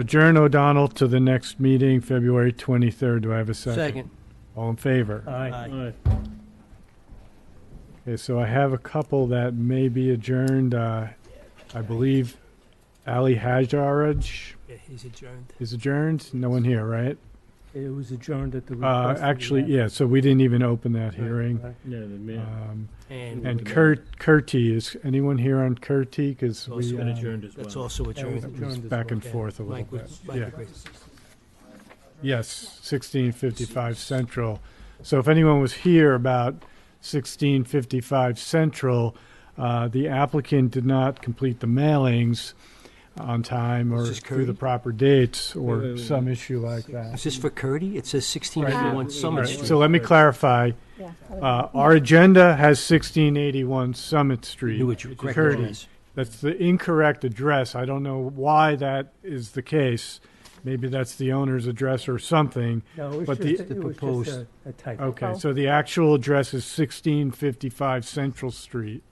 Adjourn O'Donnell to the next meeting, February 23rd. Do I have a second? Second. All in favor? Aye. Okay, so I have a couple that may be adjourned. Uh, I believe Ali Hajaraj Yeah, he's adjourned. is adjourned. No one here, right? It was adjourned at the request. Uh, of the actually, applicant. yeah, so we didn't even open that hearing. Right. Yeah, the Uh, mayor. Um, And and Kurt, Kurti, is anyone here on Kurti? Because Those we, who Been um, adjourned as well. that's also That was adjourned. was adjourned as back well. and forth a little Mike, bit. was- Yeah. Mike agrees. Yes, 1655 Central. So if anyone was here about 1655 Central, uh, the applicant did not complete the mailings on time or Is this through the Curdy? proper dates Wait, wait, or wait. some issue like that. Is this for Curdy? It says sixteen eighty-one All Summit right, Street. so let me clarify. Yeah. Uh, Our agenda has 1681 Summit New Street. address. Curdy. That's the incorrect address. I don't know why that is the case. Maybe that's the owner's address or something. No, it was But the- just, it was just proposed- a- a typo. Okay, Oh. so the actual address is sixteen fifty-five Central Street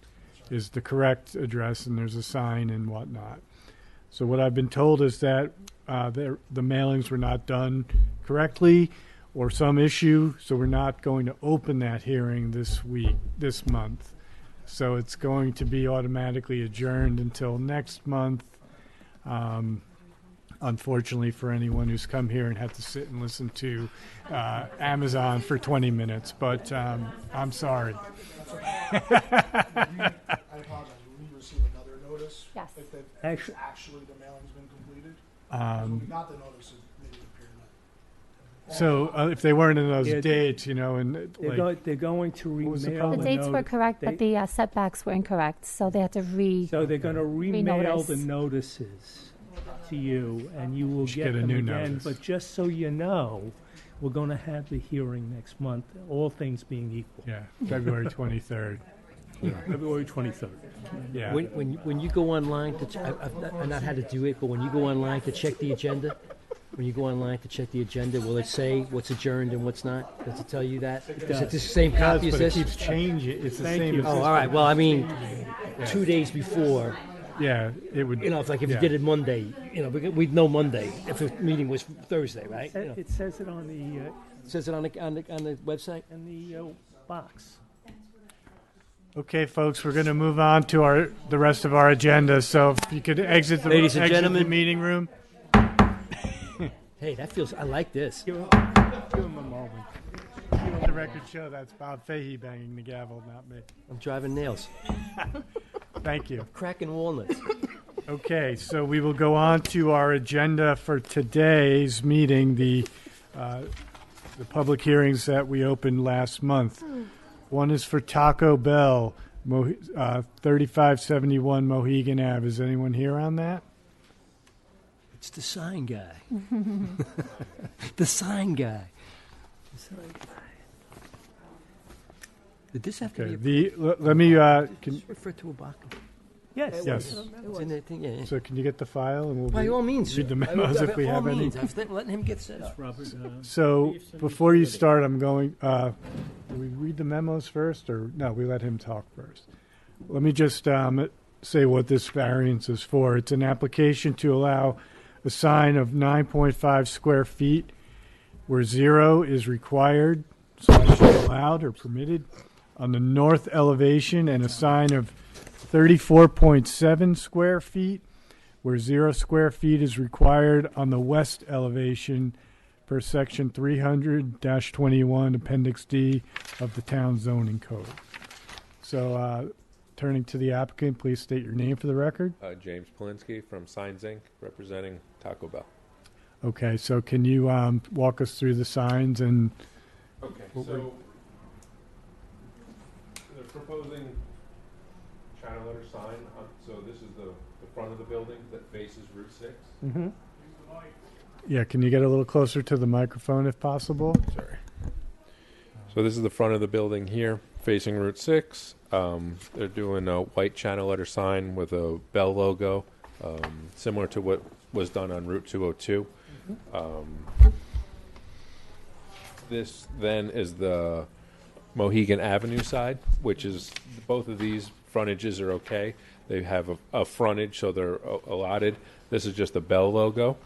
is the correct address, and there's a sign and whatnot. So what I've been told is that, uh, there, the mailings were not done correctly or some issue, so we're not going to open that hearing this week, this month. So it's going to be automatically adjourned until next month. Um, unfortunately for anyone who's come here and had to sit and listen to uh, Amazon for 20 minutes, but um, I'm sorry. I apologize, will we receive another notice? Yes. If they've, if Actu- actually the mailing's been completed? Um, Not the notice, it maybe the pyramid. so uh, if they weren't in those Yeah. dates, you know, and it, They're like, going, they're going to What was the remail problem? The the dates were notice. correct, but the uh, setbacks were incorrect, so they had to re, So they're gonna remail the Renotice. notices to you, and you will should get get a them new again. notice. But just so you know, we're gonna have the hearing next month, all things being equal. yeah, February 23rd. February twenty-third. Yeah. When, when, when you go online to, ch- I- I've not, I've not had to do it, but when you go online to check the agenda, when you go online to check the agenda, will it say what's adjourned and what's not? Does it tell you that? Is it the same copy as but it this? keeps changing. It's the Thank same. you. as Oh, this. all right, well, I mean, two days before, Yeah, it would. you know, if like if you Yeah. did it Monday, you know, we could- we'd know Monday if the meeting was Thursday, right? You know, It It says it on the, uh, Says it on the, on the, on the website? in the, uh, box. Okay, folks, we're going to move on to our the rest of our agenda. So if you could exit the, Ladies and exit the gentlemen. meeting room. Hey, that feels, I like this. Give 'em a moment. Let the record show that's Bob Fahey banging the gavel, not me. I'm driving nails, Thank you. cracking walnuts. Okay, so we will go on to our agenda for today's meeting, the, uh, the public hearings that we opened last month. One is for Taco Bell, Mo- uh, 3571 Mohegan Ave. Is anyone here on that? It's the sign guy. the sign guy. The sign guy. Did this have Okay, to be the, le- let me, uh, can, a, referred to a Baca? Yes. yes. It's in that thing, yeah. yeah. So can you get the file and we'll. By be- all means. read the by all- memos if by we all have any. means. I was let- letting him get set up. Robert, uh, So before you start, I'm going, uh, do we read the memos first or, no, we let him talk first. Let me just um, say what this variance is for. It's an application to allow a sign of 9.5 square feet where zero is required, slash allowed or permitted, on the north elevation and a sign of 34.7 square feet where zero square feet is required on the west elevation per section 300-21 appendix d of the town zoning code so uh, turning to the applicant please state your name for the record Uh, James Polinsky from Signs Inc., representing Taco Bell. okay so can you um, walk us through the signs and Okay, What so they're proposing china letter sign. On, so this is the, the front of the building that faces Route 6. Mm-hmm. yeah can you get a little closer to the microphone if possible Sorry. So this is the front of the building here, facing Route 6. Um, they're doing a white china letter sign with a bell logo, um, similar to what was done on Route 202. Um, this then is the Mohegan Avenue side, which is both of these frontages are okay. They have a, a frontage, so they're a- allotted. This is just the Bell logo.